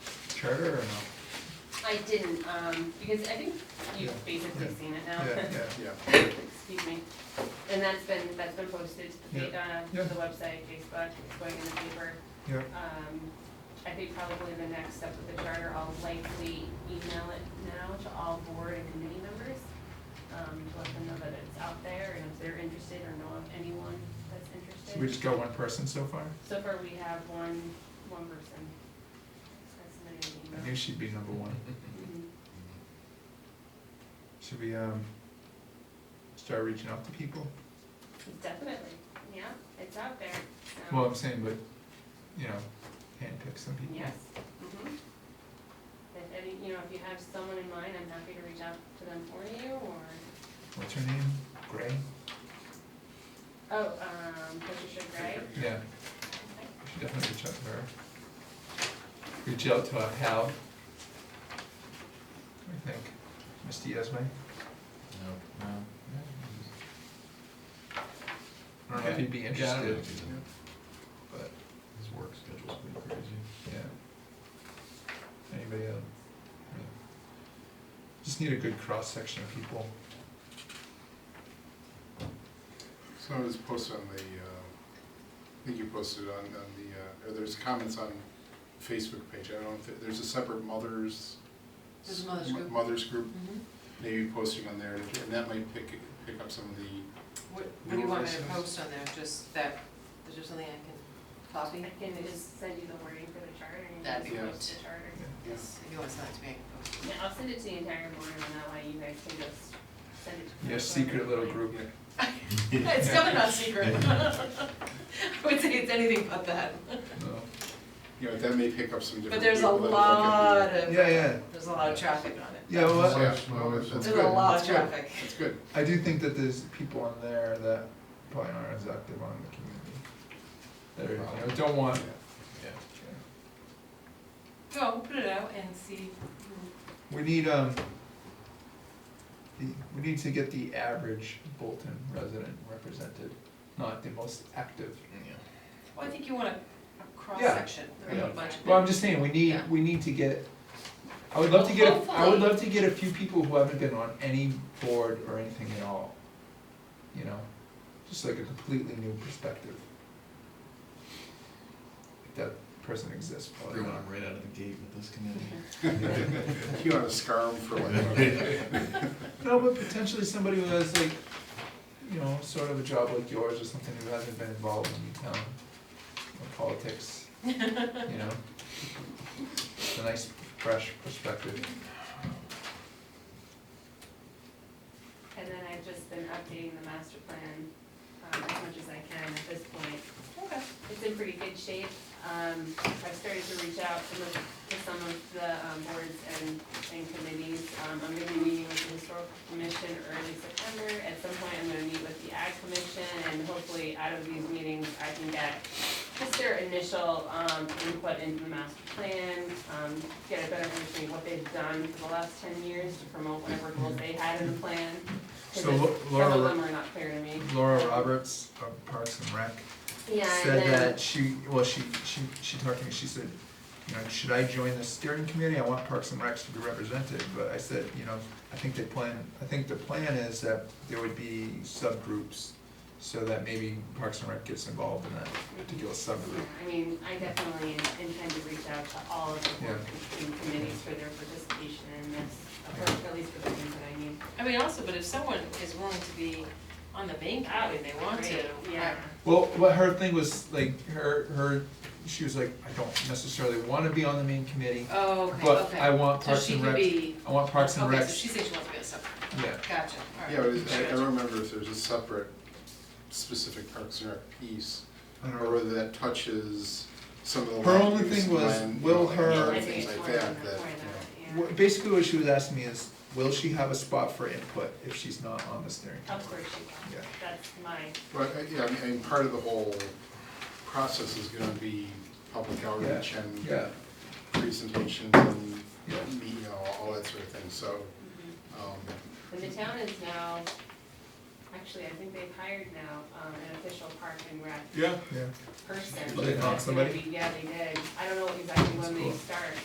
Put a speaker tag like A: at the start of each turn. A: charter or no?
B: I didn't, um, because I think you've basically
A: Yeah.
B: seen it now.
A: Yeah, yeah, yeah.
B: Excuse me. And that's been, that's been posted to the, fa- uh,
A: Yeah.
B: to the website, Facebook, it's going in the paper.
A: Yeah.
B: Um, I think probably the next step with the charter, I'll likely email it now to all board and committee members. Um, to let them know that it's out there and if they're interested or know of anyone that's
A: So we
B: interested.
A: just got one person so far?
B: So far, we have one, one person. That's submitted an
A: I
B: email.
A: knew she'd be number one.
B: Mhm.
A: Should we, um, start reaching out to people?
B: Definitely, yeah, it's out there, so.
A: Well, I'm saying, but, you know, handpick some people.
B: Yes, mhm. If any, you know, if you have someone in mind, I'm happy to reach out to them for you, or,
A: What's her name? Gray?
B: oh, um, Patricia Gray.
A: Yeah, we should definitely reach out to her. Reach out to uh, Hal. I think, Mr. Yasmin.
C: No.
A: I don't know if he'd be
C: Yeah, I don't know
A: interested,
C: if he's in it.
A: but,
C: His work schedule's pretty crazy.
A: yeah. Anybody else? Yeah. Just need a good cross-section of people.
D: So it was posted on the, uh, I think you posted on, on the, uh, or there's comments on Facebook page, I don't know if, it- there's a separate mothers.
E: There's a mothers
D: m-
E: group.
D: Mothers group,
E: Mhm.
D: maybe posting on there, and that might pick, pick up some of the,
E: What, what do you want me to
D: Newer versions.
E: post on there, just that, is there something I can copy?
B: I can just send you the wording for the charter, and you
E: That'd
B: can
D: be
B: post the charter.
D: yeah.
E: Yes, if you want to send it to me, I can post
B: Yeah, I'll send it to the entire board, and that way you guys can just send it to.
A: Your
B: whoever.
A: secret little group.
D: Yeah.
E: it. It's definitely not secret. I would say it's anything but that,
A: No.
D: You know, that may pick up some different.
E: but there's a
D: people that'll look
E: lot
D: at
E: of,
A: Yeah, yeah,
E: there's a lot of traffic on it.
A: yeah, well,
D: the-
A: I-
D: Yeah, well, that's
E: There's
D: that's
E: a
D: good.
E: lot
D: that's
E: of
D: good,
E: traffic.
D: That's good,
A: I do think that there's people on there that probably aren't as active on the community. That are, you know, don't want,
C: Yeah.
E: So we'll put it out and see who,
A: we need, um, the, we need to get the average Bolton resident represented, not the most active.
C: Yeah.
E: well, I think you want a, a cross-section, or
A: yeah.
E: a bunch of.
A: Well, I'm just saying, we need,
E: Yeah.
A: we need to get, I would love to get, a- I would
E: Hopefully.
A: love to get a few people who haven't been on any board or anything at all. You know, just like a completely new perspective. If that person exists, probably
C: Everyone,
A: not.
C: I'm right out of the gate with this committee.
D: you want to scar 'em for like,
A: No, but potentially somebody who has like, you know, sort of a job like yours or something who hasn't been involved in town or politics, you know? It's a nice, fresh perspective.
B: And then I've just been updating the master plan, um, as much as I can at this point,
E: Okay.
B: it's in pretty good shape. Um, I've started to reach out to the, to some of the um, boards and, and committees. Um, I'm gonna be meeting with the historical commission early September. At some point, I'm gonna meet with the ag commission, and hopefully out of these meetings, I can get just their initial, um, input into the master plan, um, get a better understanding of what they've done for the last ten years to promote whatever goals they had in the plan. 'Cause
A: So
B: it's-
A: Lo-
B: Some of
A: Laura-
B: them are not clear to me.
A: Laura Roberts of Parks and Rec
B: Yeah, and
A: said
B: then-
A: that she, well, she, she, she talked to me, she said, you know, should I join the steering committee? I want Parks and Recs to be represented, but I said, you know, I think the plan, I think the plan is that there would be subgroups so that maybe Parks and Rec gets involved in that particular subgroup.
B: I mean, I definitely intend to reach out to all of the board and committees for their participation in this, approach, at least for the things that I need.
E: I mean, also, but if someone is willing to be on the main committee, and they want to.
B: Great, Yeah.
A: Well, what her thing was, like, her, her, she was like, I don't necessarily wanna be on the main committee,
E: Oh, okay,
A: but
E: okay.
A: I want Parks and Rec,
E: So she could be.
A: I want Parks and
E: Okay, so
A: Recs,
E: she said she wants to be a sub,
A: yeah,
E: gotcha, alright.
D: yeah, but it's- I I don't remember if there's a separate specific Parks and Rec piece,
A: I don't know.
D: or whether that touches some of the.
A: Her
D: land
A: only
D: use
A: thing was,
D: plan,
A: will
D: you know,
A: her-
D: and
B: I think
D: Things
B: it's
D: like
B: one of
D: that,
B: them
D: that,
B: for
D: you know.
B: that,
A: Wha- Basically, what she was asking me is, will she have a spot for input if she's not on the steering
B: yeah. Of course she
A: committee?
B: can, that's my,
D: But, uh, yeah, I mean, I mean, part of the whole process is gonna be public outreach
A: Yeah,
D: and
A: yeah,
D: presentations and,
A: yeah,
D: you know, all that sort of thing, so, um,
B: and the town is now, actually, I think they've hired now, um, an official park and rec
A: yeah.
B: person.
A: Did they knock
B: that's gonna
A: somebody?
B: be- Yeah, they did, I don't know exactly
A: That's
B: when they
A: cool.
B: start,